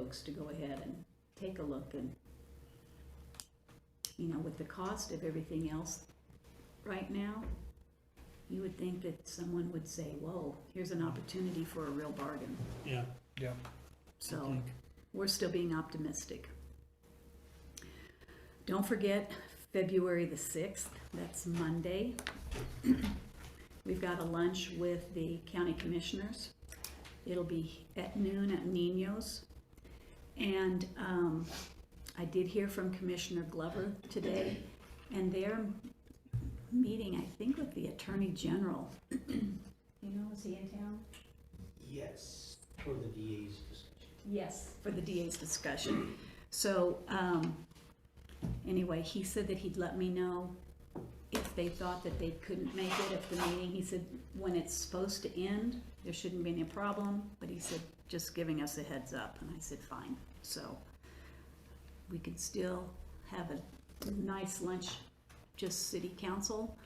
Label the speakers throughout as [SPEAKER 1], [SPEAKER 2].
[SPEAKER 1] folks to go ahead and take a look and, you know, with the cost of everything else right now, you would think that someone would say, whoa, here's an opportunity for a real bargain.
[SPEAKER 2] yeah.
[SPEAKER 3] Yeah.
[SPEAKER 1] So we're still being optimistic. Don't forget, February the 6th, that's Monday. We've got a lunch with the county commissioners. It'll be at noon at Nino's. And um, I did hear from Commissioner Glover today, and they're meeting, I think, with the Attorney General. You know, is he in town?
[SPEAKER 4] Yes, for the DA's discussion.
[SPEAKER 1] Yes. For the DA's discussion. So, um, anyway, he said that he'd let me know if they thought that they couldn't make it at the meeting. He said, when it's supposed to end, there shouldn't be any problem, but he said, just giving us a heads up, and I said, fine. So, we could still have a nice lunch, just city council.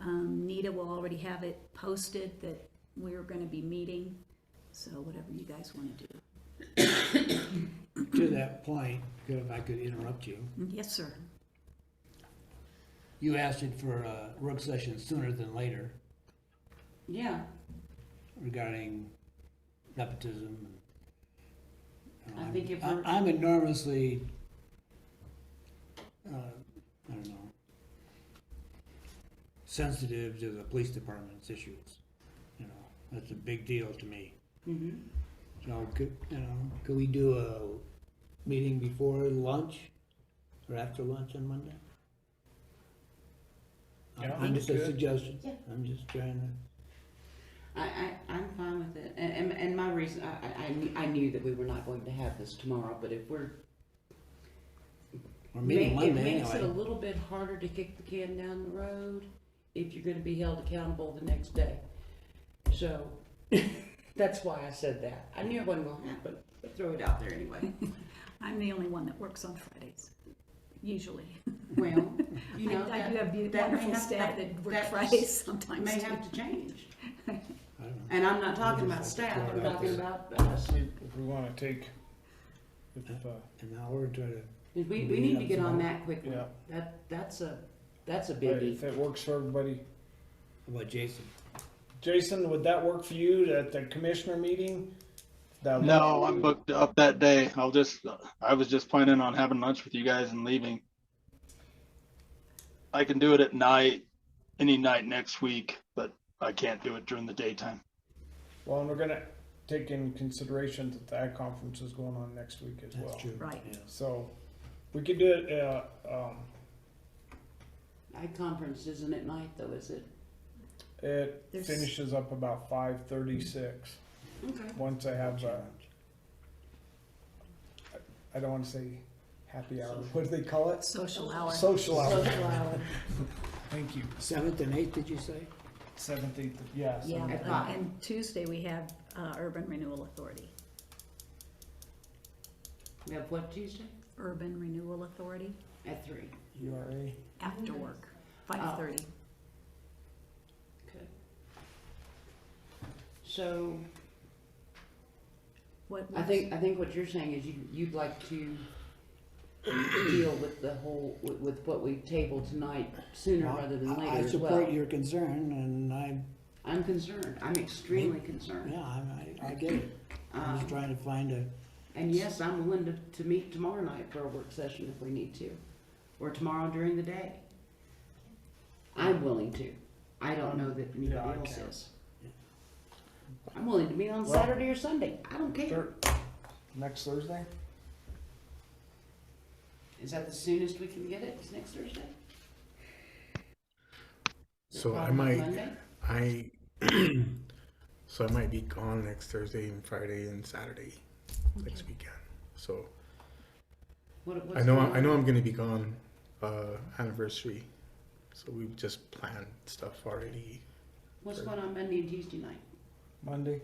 [SPEAKER 1] Um, Nita will already have it posted that we're gonna be meeting, so whatever you guys wanna do.
[SPEAKER 2] To that point, if I could interrupt you,
[SPEAKER 5] Mm-hmm.
[SPEAKER 1] Yes, sir.
[SPEAKER 2] you asked it for a work session sooner than later
[SPEAKER 1] Yeah.
[SPEAKER 2] regarding nepotism. and-
[SPEAKER 5] I think if
[SPEAKER 2] I'm-
[SPEAKER 5] we're-
[SPEAKER 2] I'm enormously, uh, I don't know, sensitive to the police department's issues, you know, that's a big deal to me.
[SPEAKER 5] Mhm.
[SPEAKER 2] So could, you know, could we do a meeting before lunch or after lunch on Monday? I'm-
[SPEAKER 3] Yeah,
[SPEAKER 2] I'm just a
[SPEAKER 3] that's good.
[SPEAKER 2] suggestion.
[SPEAKER 5] Yeah.
[SPEAKER 2] I'm just trying to.
[SPEAKER 5] I, I, I'm fine with it, and, and, and my reason, I, I- I, knew- I knew that we were not going to have this tomorrow, but if we're.
[SPEAKER 2] We're meeting
[SPEAKER 5] ma- it
[SPEAKER 2] Monday
[SPEAKER 5] Makes it a
[SPEAKER 2] anyway.
[SPEAKER 5] little bit harder to kick the can down the road if you're gonna be held accountable the next day. So, that's why I said that. I knew it wasn't gonna happen, but throw it out there anyway.
[SPEAKER 1] I'm the only one that works on Fridays, usually.
[SPEAKER 5] Well, you
[SPEAKER 1] I
[SPEAKER 5] know,
[SPEAKER 1] I do have
[SPEAKER 5] that,
[SPEAKER 1] beau-
[SPEAKER 5] that may
[SPEAKER 1] wonderful
[SPEAKER 5] have,
[SPEAKER 1] staff
[SPEAKER 5] that,
[SPEAKER 1] that work
[SPEAKER 5] that
[SPEAKER 1] Fridays sometimes.
[SPEAKER 5] may
[SPEAKER 1] too.
[SPEAKER 5] have to change.
[SPEAKER 2] I don't know.
[SPEAKER 5] And I'm not talking
[SPEAKER 2] We'll
[SPEAKER 5] about
[SPEAKER 2] just
[SPEAKER 5] staff,
[SPEAKER 2] have to
[SPEAKER 5] I'm
[SPEAKER 2] throw it out
[SPEAKER 5] talking about us.
[SPEAKER 3] If if we wanna take, if, uh,
[SPEAKER 2] An hour to try to,
[SPEAKER 5] We, we
[SPEAKER 2] We
[SPEAKER 5] need to
[SPEAKER 2] have
[SPEAKER 5] get
[SPEAKER 2] some
[SPEAKER 5] on
[SPEAKER 2] more.
[SPEAKER 5] that quickly.
[SPEAKER 3] Yeah.
[SPEAKER 5] That, that's a, that's a biggie.
[SPEAKER 3] if it works for everybody.
[SPEAKER 2] how about Jason?
[SPEAKER 3] Jason, would that work for you at the commissioner meeting? That-
[SPEAKER 6] No, I'm booked up that day. I'll just, I was just planning on having lunch with you guys and leaving. I can do it at night, any night next week, but I can't do it during the daytime.
[SPEAKER 3] Well, and we're gonna take in consideration that the ag conference is going on next week as well.
[SPEAKER 2] That's true.
[SPEAKER 1] Right.
[SPEAKER 2] yeah.
[SPEAKER 3] So, we could do it, uh, um,
[SPEAKER 5] Ag conference isn't at night though, is it?
[SPEAKER 3] it
[SPEAKER 1] There's-
[SPEAKER 3] finishes up about five thirty-six,
[SPEAKER 5] Okay.
[SPEAKER 3] once I have, uh, I don't wanna say happy hour, what do they call it?
[SPEAKER 1] Social hour.
[SPEAKER 3] Social hour,
[SPEAKER 5] Social hour.
[SPEAKER 3] thank you,
[SPEAKER 2] Seventh and eighth, did you say?
[SPEAKER 3] seventh, eighth, yeah.
[SPEAKER 1] Yeah,
[SPEAKER 3] seventh.
[SPEAKER 5] At
[SPEAKER 1] and-
[SPEAKER 5] five.
[SPEAKER 1] and Tuesday we have uh, Urban Renewal Authority.
[SPEAKER 5] We have what Tuesday?
[SPEAKER 1] Urban Renewal Authority
[SPEAKER 5] At three.
[SPEAKER 3] URA.
[SPEAKER 5] Mm-hmm.
[SPEAKER 1] after work,
[SPEAKER 5] Oh.
[SPEAKER 1] five thirty.
[SPEAKER 5] Okay. So
[SPEAKER 1] What?
[SPEAKER 5] I think, I think what you're saying is you, you'd like to deal with the whole, with, with what we tabled tonight sooner rather than
[SPEAKER 2] Well, I-
[SPEAKER 5] later
[SPEAKER 2] I
[SPEAKER 5] as
[SPEAKER 2] support
[SPEAKER 5] well.
[SPEAKER 2] your concern and I,
[SPEAKER 5] I'm concerned. I'm extremely concerned.
[SPEAKER 2] yeah, I, I I get it. I'm just
[SPEAKER 5] Um,
[SPEAKER 2] trying to find a,
[SPEAKER 5] and yes, I'm willing to, to meet tomorrow night for a work session if we need to, or tomorrow during the day. I'm willing to. I don't know that anybody
[SPEAKER 3] Yeah, I
[SPEAKER 5] else
[SPEAKER 3] can.
[SPEAKER 5] is. I'm willing to meet on
[SPEAKER 3] Well-
[SPEAKER 5] Saturday or Sunday. I don't care.
[SPEAKER 3] Thir- Next Thursday?
[SPEAKER 5] Is that the soonest we can get it? Is next Thursday?
[SPEAKER 7] So I
[SPEAKER 5] Probably
[SPEAKER 7] might,
[SPEAKER 5] Monday?
[SPEAKER 7] I, so I might be gone next Thursday and Friday and Saturday next weekend. So
[SPEAKER 5] What,
[SPEAKER 7] I
[SPEAKER 5] what's
[SPEAKER 7] know,
[SPEAKER 5] going
[SPEAKER 7] I
[SPEAKER 5] on?
[SPEAKER 7] know I'm gonna be gone, uh, anniversary. So we've just planned stuff already.
[SPEAKER 5] What's going on Monday and Tuesday night?
[SPEAKER 3] Monday?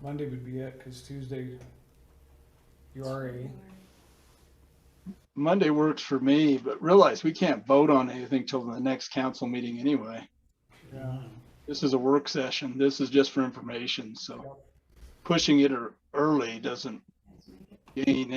[SPEAKER 3] Monday would be it, cause Tuesday, URA,
[SPEAKER 6] Monday works for me, but realize we can't vote on anything till the next council meeting anyway.
[SPEAKER 3] yeah,
[SPEAKER 6] This is a work session. This is just for information, so pushing it er- early doesn't gain